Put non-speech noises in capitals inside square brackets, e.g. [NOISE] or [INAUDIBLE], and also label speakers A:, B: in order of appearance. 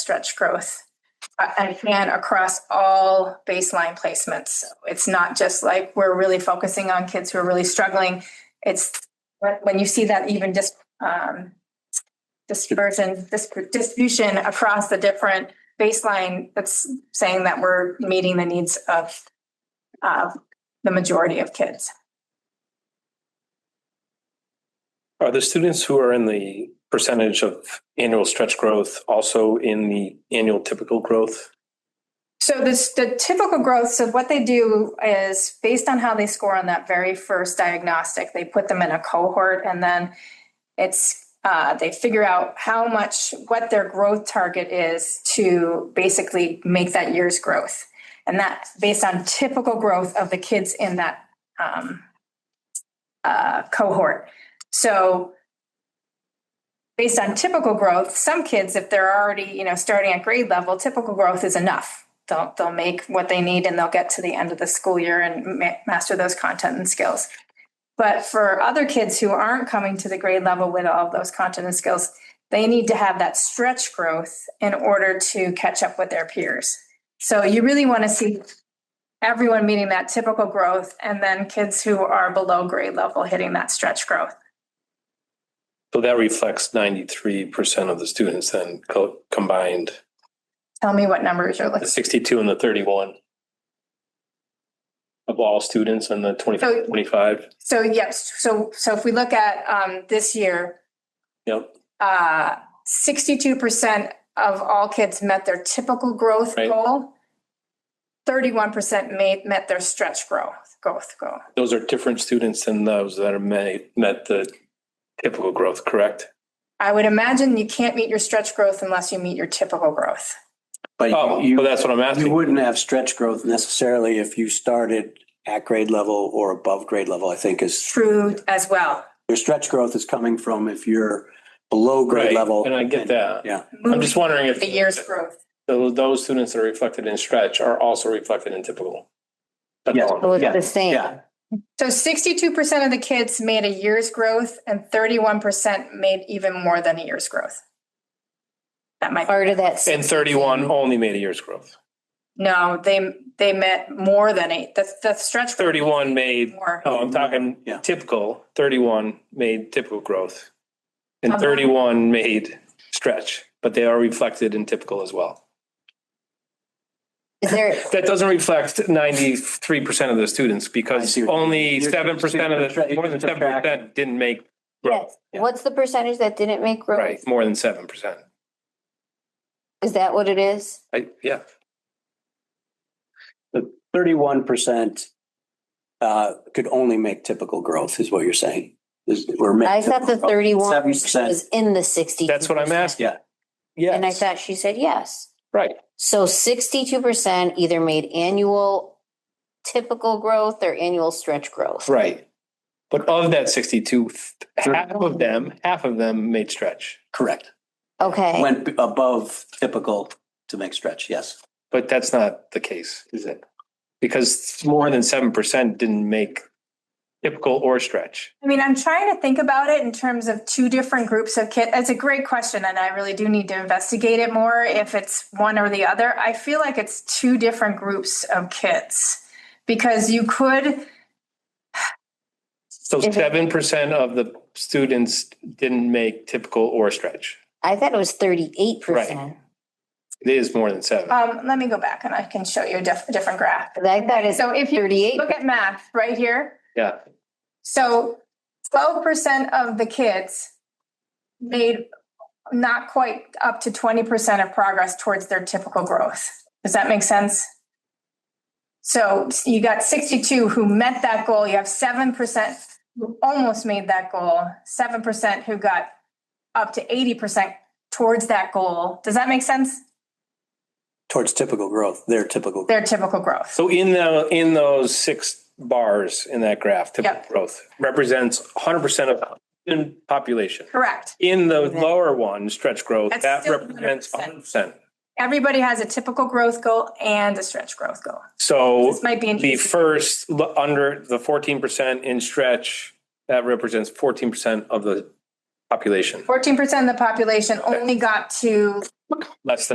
A: stretch growth. uh, Again, across all baseline placements. So It's not just like we're really focusing on kids who are really struggling. It's when, when you see that even just um, dispersion, dis- distribution across the different baseline, that's saying that we're meeting the needs of uh, the majority of kids.
B: Are the students who are in the percentage of annual stretch growth also in the annual typical growth?
A: So this, the typical growth, so what they do is based on how they score on that very first diagnostic, they put them in a cohort and then it's, uh, they figure out how much, what their growth target is to basically make that year's growth. And that, based on typical growth of the kids in that, um, uh, cohort. So based on typical growth, some kids, if they're already, you know, starting at grade level, typical growth is enough. They'll, they'll make what they need and they'll get to the end of the school year and ma- master those content and skills. But for other kids who aren't coming to the grade level with all of those content and skills, they need to have that stretch growth in order to catch up with their peers. So you really want to see everyone meeting that typical growth and then kids who are below grade level hitting that stretch growth.
B: So that reflects ninety-three percent of the students then co- combined,
A: Tell me what numbers you're
B: the
A: looking.
B: sixty-two and the thirty-one of all students and the 25.
A: So- So yes, so so if we look at um this year,
B: Yep,
A: uh sixty-two percent of all kids met their typical growth
B: Right.
A: goal. Thirty-one percent made met their stretch growth growth goal.
B: those are different students than those that are ma- met the typical growth, correct?
A: I would imagine you can't meet your stretch growth unless you meet your typical growth.
B: Oh,
C: But
B: well,
C: you,
B: that's what I'm
C: you
B: asking.
C: wouldn't have stretch growth necessarily if you started at grade level or above grade level, I think is,
A: True as well.
C: your stretch growth is coming from if you're below grade
B: Right,
C: level.
B: And I get that.
C: Yeah,
B: I'm just wondering if
A: The year's growth.
B: tho- those students that are reflected in stretch are also reflected in typical. That's
C: Yes.
B: all.
D: Well, it's
C: Yeah,
D: the same.
C: yeah.
A: So sixty-two percent of the kids made a year's growth and thirty-one percent made even more than a year's growth. That might.
D: Part of that,
B: And thirty-one only made a year's growth.
A: No, they, they met more than eight, the, the stretch. goal
B: Thirty-one
A: was
B: made,
A: More.
B: oh, I'm talking
C: Yeah.
B: typical, thirty-one made typical growth. And
D: Um,
A: Uh-huh.
B: thirty-one made stretch, but they are reflected in typical as well. [LAUGHS]
D: is there,
B: That doesn't reflect ninety-three percent of the students
C: I
B: because
C: see what you mean.
B: only
C: You're-
B: seven percent of
C: you're-
B: the,
C: you're
B: more than seven
C: subtracting.
B: percent didn't make growth.
D: yes, what's the percentage that didn't make
B: Right,
D: growth?
B: more than seven percent.
D: Is that what it is?
B: I, yeah,
C: thirty-one percent uh, could only make typical growth is what you're saying. Is- or make
D: I thought the
C: typical-
D: thirty-one
C: 7%.
D: was in the sixty.
B: that's what I'm asking.
C: Yeah.
D: And I
B: Yes,
D: thought she said yes.
B: right.
D: So sixty-two percent either made annual typical growth or annual stretch growth.
B: Right. But of that sixty-two, half of them, half of them made stretch.
C: Correct.
D: Okay,
C: Went b- above typical to make stretch, yes.
B: But that's not the case, is it? Because more than seven percent didn't make typical or stretch.
A: I mean, I'm trying to think about it in terms of two different groups of kids. It's a great question, and I really do need to investigate it more if it's one or the other. I feel like it's two different groups of kids because you could,
B: So
D: If it-
B: seven percent of the students didn't make typical or stretch.
D: I thought it was thirty-eight percent.
B: It is more than seven.
A: um, let me go back and I can show you a diff- different graph.
D: I thought it's
A: So if you
D: thirty-eight.
A: look at math right here,
B: Yeah,
A: So twelve percent of the kids made not quite up to twenty percent of progress towards their typical growth. Does that make sense? So you got sixty-two who met that goal. You have seven percent who almost made that goal, seven percent who got up to eighty percent towards that goal. Does that make sense?
C: Towards typical growth, their typical.
A: Their typical growth.
B: so in the, in those six bars in that graph, typical
A: Yep.
B: growth represents hundred percent of the population.
A: Correct.
B: In the
D: Okay.
B: lower one, stretch growth,
A: That's
B: that
A: still
B: represents
A: 100%.
B: hundred percent.
A: Everybody has a typical growth goal and a stretch growth goal.
B: So
A: This might be an
B: the
A: easy.
B: first, lo- under the fourteen percent in stretch, that represents fourteen percent of the population,
A: Fourteen percent of the population only got to
B: less than